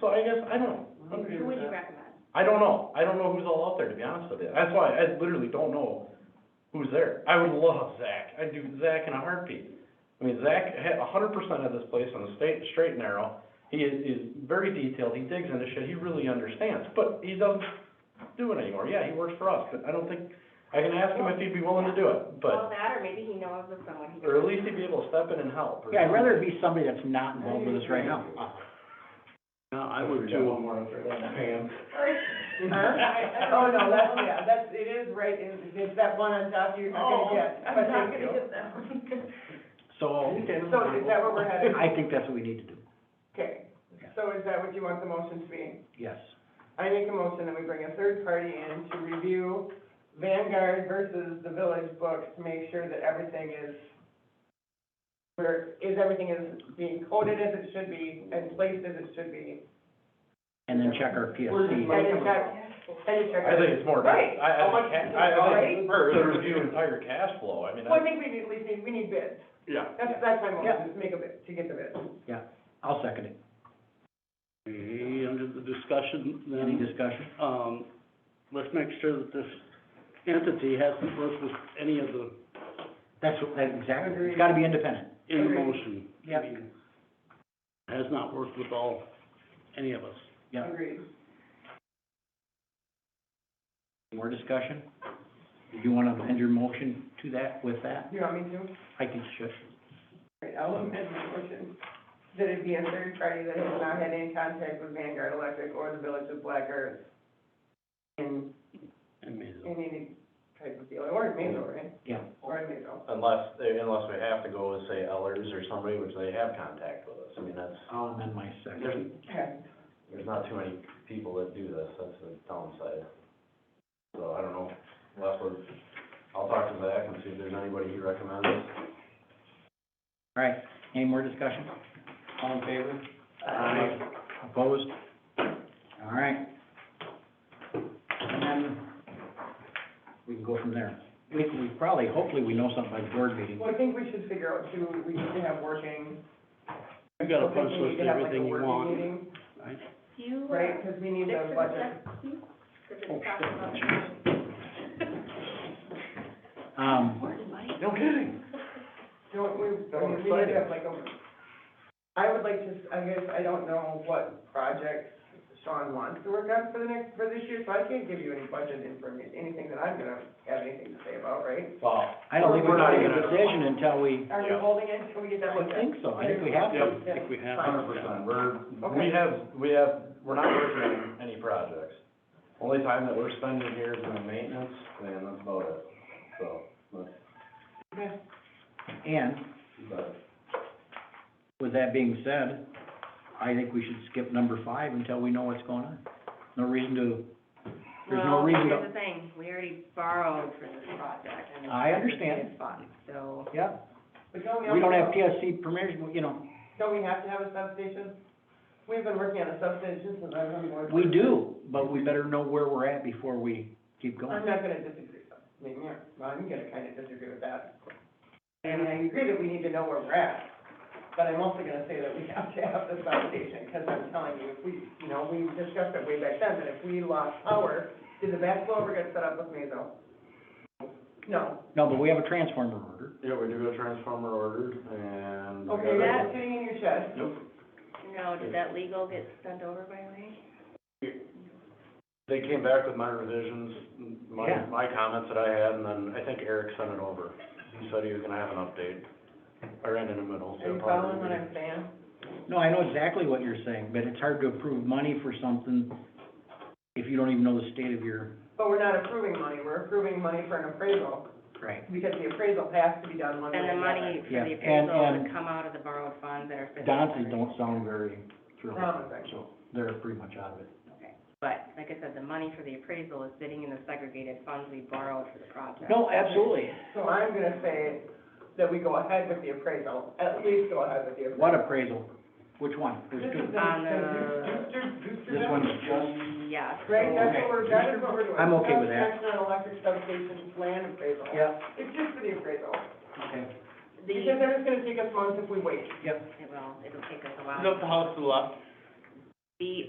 So I guess, I don't, Who would agree with you that. recommend? I don't know, I don't know who's all out there, to be honest with you, that's why I literally don't know who's there. I would love Zach, I'd do Zach in a heartbeat. I mean, Zach had a hundred percent of this place on the state, straight and narrow, he is, is very detailed, he digs into shit, he really understands, but he doesn't do it anymore, yeah, he works for us, but I don't think, I can ask him if he'd be willing to do it, but, Well, that, or maybe he knows of someone who. or at least he'd be able to step in and help. or Yeah, I'd rather something. it be somebody that's not involved with us right now. No, I would too. more after that, Pam. Oh, no, that's, yeah, that's, it is right, in it's that one on top you're not Oh, gonna get. but thank you. that one. So, So is that where we're headed? I think that's what we need to do, Okay, so is that what you want the motion to be? yes. I make a motion that we bring a third party in to review Vanguard versus the village books to make sure that everything is, where, is everything is being coded as it should be and placed as it should be. And then check our And PSC. it's not- and it's not- I think it's more, I, Right. I How much think, is it, ca- I, I right? think first, to review entire cash flow, I mean, Well, I, I think we need, at least need, we need bids. yeah. That's, that's my motion, is make a bid, to get the bid. I'll second it. Okay, under the discussion Any then, discussion? um, let's make sure that this entity hasn't worked with any of the, That's, what- that, exactly, Agreed. it's gotta be independent. in the Agreed. motion. Yep. Has not worked with all, any of us. Yeah. Agreed. More discussion? Do you wanna amend your motion to that, with that? You want me to? I think you should. Right, I'll amend my motion, that it be a third party that has not had any contact with Vanguard Electric or the Village of Black Earth in, And made in any type of deal, or in Mazo, right? Yeah. Or in Mazo. unless, unless we have to go with, say, Ellers or somebody, which they have contact with us, I mean, that's, I'll amend my there's, second. Okay. there's not too many people that do this, that's the downside. So I don't know, Last one. I'll talk to Zach and see if there's anybody he recommends. All right, any more discussion? All in favor? Aye. Opposed? All right. And then we can go from there. We, we probably, hopefully, we know something by the board meeting. Well, I think we should figure out too, we need to have working. You got a I think punch we need list to of have, like, a everything you working want. meeting, I, Do you, uh, Right, because we need stick to a the budget. check, please? 'Cause it's Oh, shit. talking about- Um, Where did my- No kidding. Don't we, I Oh, I'm mean, we need excited. to have like a, I would like to, s- I guess, I don't know what projects Sean wants to work on for the next, for this year, so I can't give you any budget information, anything that I'm gonna have anything to say about, right? Wow. I don't think we're We're not gonna make even at a a decision until we, Are we Yeah. holding it until we get that I looked at? think so, I think we have yeah, to. I think we have. Hundred percent, we're, we Okay. have, we have, we're not working on any projects. Only time that we're spending here is on maintenance, and that's about it, so, that's, And but. with that being said, I think we should skip number five until we know what's going on. No reason to, there's no Well, reason here's to, the thing, we already borrowed for this project, and it's. I understand. It's fun, so. yeah, But don't we we don't also- have PSC permission, you know, Don't we have to have a substation? We've been working on a substation since I've been working. we do, but we better know where we're at before we keep I'm going. not gonna disagree, with- I mean, yeah, well, I'm gonna kinda disagree with that. And I agree that we need to know where we're at, but I'm also gonna say that we have to have this foundation, because I'm telling you, if we, you know, we discussed it way back then, that if we lost power, did the backflow ever get set up with Mazo? No. No, but we have a transformer order. Yeah, we do a transformer ordered, and. we Okay, got that's it. sitting in your shed. Nope. No, did that legal get sent over by Ray? They came back with my revisions, m- my, Yeah. my comments that I had, and then I think Eric sent it over. He said he was gonna have an update. I ran in the middle, so. Are you probably following what we- I'm saying? No, I know exactly what you're saying, but it's hard to approve money for something if you don't even know the state of your. But we're not approving money, we're approving money for an appraisal, Right. because the appraisal has to be done one way or And the another. money for Yeah, the and- appraisal and- would come out of the borrowed funds that are. for the- Dances don't sound very thrilled, Promising. so they're pretty much out of it. But, like I said, the money for the appraisal is sitting in the segregated funds we borrowed for the project. No, absolutely. So I'm gonna say that we go ahead with the appraisal, at least go ahead with the appraisal. What appraisal? Which one? There's This two. is the- On the Dukes- Dukes- Dukes- This one's just, Yes. Right, that's what we're, that is what we're doing. I'm okay with that. Construction and electric substation land appraisal. yeah, It's just for the appraisal, okay, The, because then it's gonna take us months if we wait. yep. it will, it'll take us a while. the house to the left? The